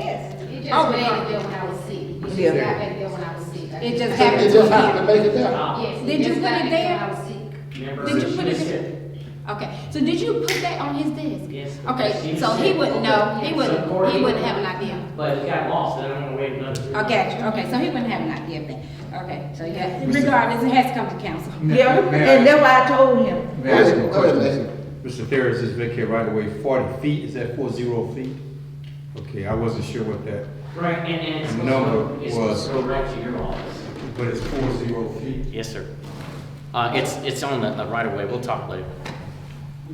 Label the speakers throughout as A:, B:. A: test.
B: It
A: Oh,
B: just made
A: God.
B: it there when I was sick. It just
A: Yeah.
B: got back there when I was sick.
A: It just happened.
C: It just happened to make it there.
B: Yes.
A: Did you
B: just
A: put
B: got
A: it
B: back there
A: there?
B: When I was sick.
D: Remember,
A: Did you
D: she
A: put it
D: said-
A: in? Okay, so did you put that on his desk?
D: Yes.
A: Okay,
D: She
A: so he
D: said-
A: wouldn't know, he
D: So
A: wouldn't, he
D: Courtney-
A: wouldn't have an idea.
D: But it got lost, and I'm gonna wait another. three
A: I got you, okay, so he wouldn't have an idea of that. Okay, so yeah, regardless, it has to come to council.
E: Yeah, and that's why I told him.
F: May I ask you a
C: Go ahead,
F: question? Mr. Thayer, is this vacate right away forty feet, is that four zero feet? Okay, I wasn't sure what that,
D: months. Right, and, and it's.
F: The
D: supposed
F: number
D: to- It's supposed
F: was-
D: to go right to your office.
F: but it's four zero feet.
G: Yes, sir. Uh, it's, it's on the, the right of way, we'll talk later.
H: I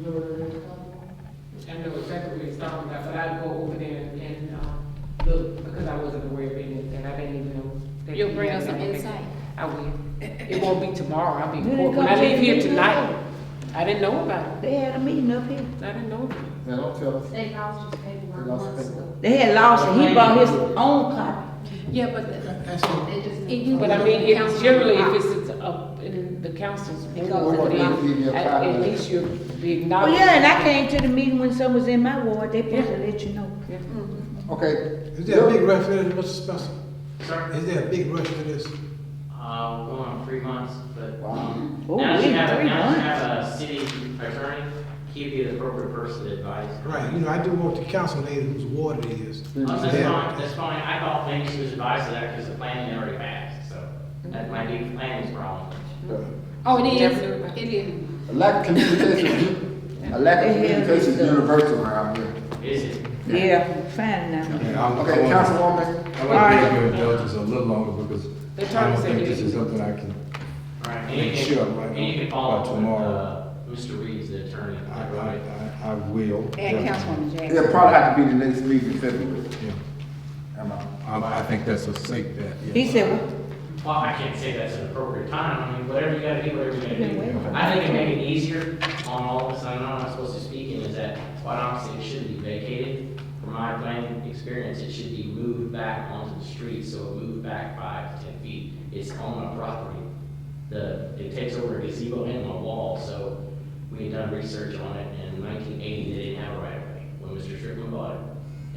H: know exactly what he's talking about, but I'd go over there and, and, um, look, because I wasn't aware of anything, I didn't even know. that
A: You'll
H: he
A: bring
H: had
A: us some
H: anything.
A: insight.
H: I will. It won't be tomorrow, I'll be,
E: You didn't
H: when I
E: come
H: leave
E: to
H: here
E: the meeting,
H: tonight, I didn't know about it,
E: They had a meeting up here.
H: I didn't know. about
C: Now, don't tell us.
B: They lost his
C: They
B: paperwork
C: lost
B: months
C: the
B: ago.
E: They had lost it. He bought his own copy.
A: Yeah, but the-
B: They just.
A: It-
H: it.
A: you-
H: But I mean, if,
A: Council-
H: generally, if it's up in the council's
A: It goes
H: board,
A: to the
H: then
C: council.
H: at, at least you'll be
E: Oh,
H: acknowledged.
E: yeah, and I came to the meeting when someone was in my ward. They supposed to let you know.
C: Okay.
I: Is there a big rush for this, Mr. Spencer?
D: Sir,
I: Is there a big rush for this?
D: uh, going on three months, but. um,
E: Oh,
C: Wow.
D: Now
E: we
D: you have,
E: three
D: now you
E: months.
D: have a city attorney, he'd be the appropriate person to advise.
I: Right, you know, I do want the council lady whose ward it is.
D: Oh, That's
I: Yeah.
D: fine, that's fine, I thought maybe she was advised of that because the planning already passed, so that might be the planning's problem.
A: oh, it is,
H: Definitely.
A: it is.
C: A lack of communication, a lack of communication is universal around here.
D: Is it?
E: Yeah, fine now.
F: And I'm, I
C: Okay,
F: want,
C: Councilwoman,
F: I want to give your indulgence a little longer because
H: They're
F: I
H: trying to
F: don't
H: say
F: think this
H: they-
F: is something I can,
D: All right,
F: Make
D: and you
F: sure,
D: can,
F: right,
D: and you can
F: by
D: follow up with,
F: tomorrow.
D: uh, Mr. Reeves, the attorney.
F: I, I, I I will.
A: And Councilwoman Jackson.
C: it'll probably have to be the next meeting in February.
F: Yeah. Um,
C: Am I-
F: I, I think that's a safe bet. yeah.
E: He said, well,
D: Well, I can't say that's an appropriate time, I mean, whatever you gotta do, whatever you gotta do. I think it made it easier on all of us, I know I'm not supposed to speak in, is that, quite honestly, it shouldn't be vacated. From my planning experience, it should be moved back onto the street, so it moved back five to ten feet. It's on a property. The, it takes over a gazebo and a wall, so we had done research on it, and in nineteen eighty, they didn't have a right of way. When Mr. Strickland bought it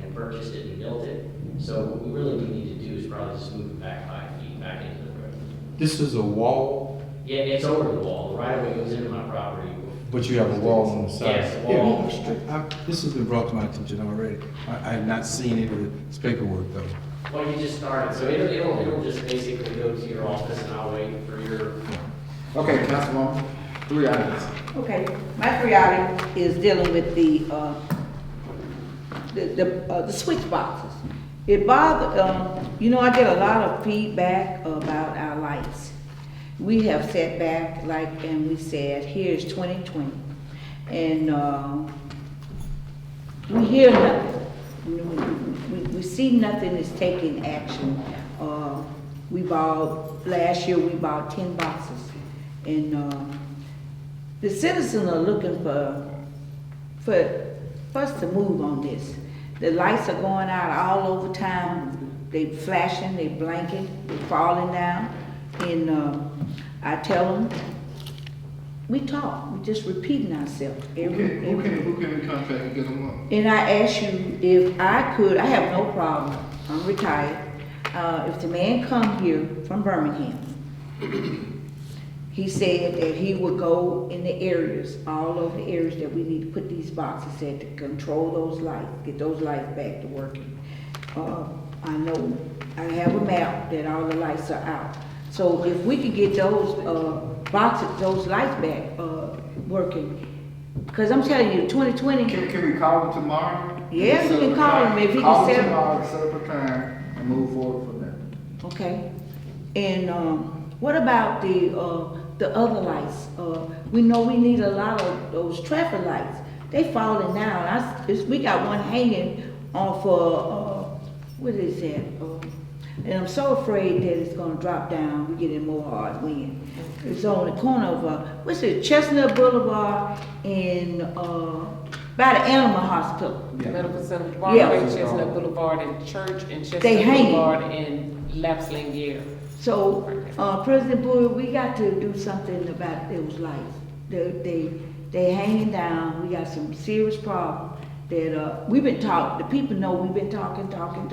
D: and purchased it and built it, so what we really do need to do is probably just move it back five feet back into the road.
F: This is a wall
D: Yeah, it's over the wall, the right of way goes into my property.
F: But you have a wall on the side.
D: Yes, wall.
F: Yeah, I- I- This has been brought to my attention already. I, I have not seen any of this paperwork though.
D: Well, you just started, so it'll, it'll, it'll just basically go to your office and I'll wait for your
C: Okay, Councilwoman, three items.
E: Okay, my three items is dealing with the, uh, the, the, uh, the switch boxes. It bothered, um, you know, I get a lot of feedback about our lights. We have set back, like, and we said, here's twenty twenty. And, um, we hear nothing. We, we- we see nothing is taking action. Uh, we bought, last year, we bought ten boxes. And, uh, the citizens are looking for, for, for us to move on this. The lights are going out all over town, they flashing, they blinking, they falling down. And, uh, I tell them, we talk, we just repeating ourselves. every- every-
C: who can contact and get them up?
E: and I asked you if I could, I have no problem, I'm retired. Uh, if the man come here from Birmingham, he said that he would go in the areas, all over the areas that we need to put these boxes at to control those lights, get those lights back to working. Uh, I know, I have a map that all the lights are out. So if we could get those, uh, boxes, those lights back, uh, working, cause I'm telling you, twenty twenty.
C: Can, can we call them tomorrow?
E: Yeah, we can call him if he can
C: Call
E: set
C: them
E: up-
C: tomorrow, set up a time and move forward from there.
E: Okay, and, um, what about the, uh, the other lights? Uh, we know we need a lot of those traffic lights, they falling down, I, s- it's- we got one hanging off, uh, uh, what is that? Uh, And I'm so afraid that it's gonna drop down, we get in more hard wind. It's on the corner of, uh, what's it, Chestnut Boulevard and, uh, by the animal hospital.
H: it. Medical Center,
E: Yeah.
H: Broadway, Chestnut Boulevard, and Church, and Chestnut
E: hanging.
H: Boulevard, and Lapsling Year.
E: So, uh, President Bowie, we got to do something about those lights. They, they, they hanging down, we got some serious problem that, uh, we've been talk, the people know we've been talking, talking,